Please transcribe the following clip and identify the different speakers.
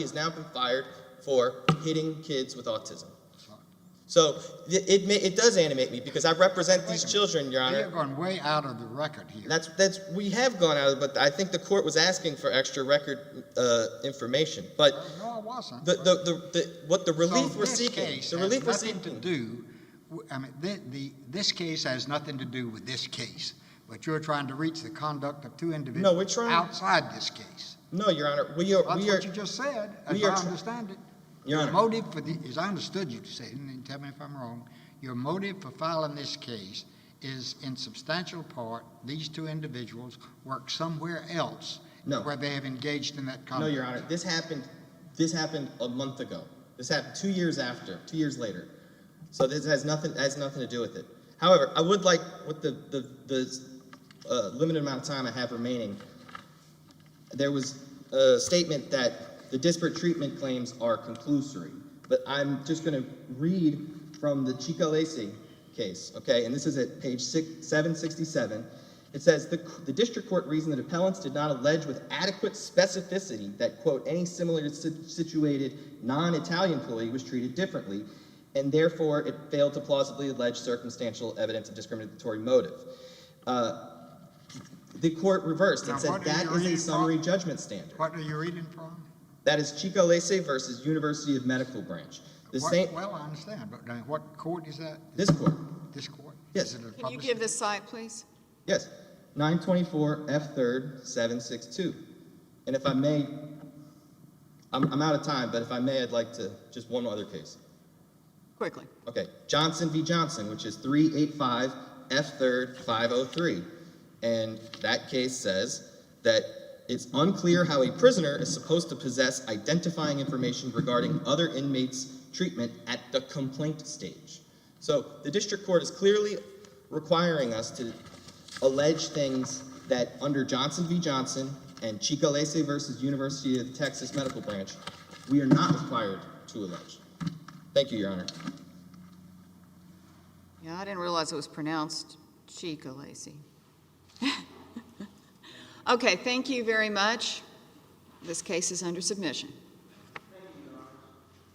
Speaker 1: has now been fired for hitting kids with autism. So it, it, ma- it does animate me because I represent these children, Your
Speaker 2: We
Speaker 1: Honor.
Speaker 2: have gone way out of the record here.
Speaker 1: That's that's we have gone out of, but I think the court was asking for extra record uh, information. But
Speaker 2: No, it wasn't.
Speaker 1: the, the, the, the what the
Speaker 2: So
Speaker 1: relief we're
Speaker 2: this
Speaker 1: seeking,
Speaker 2: case
Speaker 1: the
Speaker 2: has
Speaker 1: relief we're
Speaker 2: nothing
Speaker 1: seeking.
Speaker 2: To do, w- I mean, the, the, this case has nothing to do with this case, but you're trying to reach the conduct of two individuals.
Speaker 1: No, we're trying-
Speaker 2: Outside this case.
Speaker 1: No, Your Honor, we are
Speaker 2: That's
Speaker 1: we are
Speaker 2: what you just said,
Speaker 1: we
Speaker 2: as
Speaker 1: are
Speaker 2: I
Speaker 1: tr-
Speaker 2: understand it.
Speaker 1: Your Honor.
Speaker 2: Motive for the, as I understood you to say, and tell me if I'm wrong, your motive for filing this case is in substantial part, these two individuals work somewhere else.
Speaker 1: No.
Speaker 2: Where they have engaged in that
Speaker 1: No,
Speaker 2: conduct.
Speaker 1: Your Honor, this happened. This happened a month ago. This happened two years after, two years later. So this has nothing has nothing to do with it. However, I would like, with the the, the uh, limited amount of time I have remaining, there was a statement that the disparate treatment claims are conclusory. But I'm just going to read from the Chicalesi case, okay? And this is at page six, 767. It says the, the district court reasoned that appellants did not allege with adequate specificity that, quote, any similarly si- situated non Italian employee was treated differently, and therefore it failed to plausibly allege circumstantial evidence of discriminatory motive. Uh, the court reversed and
Speaker 2: Now,
Speaker 1: said
Speaker 2: what are
Speaker 1: that
Speaker 2: you
Speaker 1: is a
Speaker 2: reading from?
Speaker 1: summary judgment standard.
Speaker 2: What are you reading from?
Speaker 1: That is Chico Lese versus University of Medical Branch. The
Speaker 2: What-
Speaker 1: same,
Speaker 2: Well, I understand, but now what court is that?
Speaker 1: this court,
Speaker 2: This court?
Speaker 1: Yes.
Speaker 2: Is it a
Speaker 3: Can you
Speaker 2: public-
Speaker 3: give the site, please?
Speaker 1: yes, 924 F 3rd 762. And if I may, I'm, I'm out of time, but if I may, I'd like to, just one other case.
Speaker 3: Quickly.
Speaker 1: Okay, Johnson v. Johnson, which is 385 F 3rd 503. And that case says that it's unclear how a prisoner is supposed to possess identifying information regarding other inmates' treatment at the complaint stage. So the district court is clearly requiring us to allege things that under Johnson v. Johnson and Chicalese versus University of Texas Medical Branch, we are not required to allege. Thank you, Your Honor.
Speaker 3: Yeah, I didn't realize it was pronounced Chica Lacy. Okay, thank you very much. This case is under submission.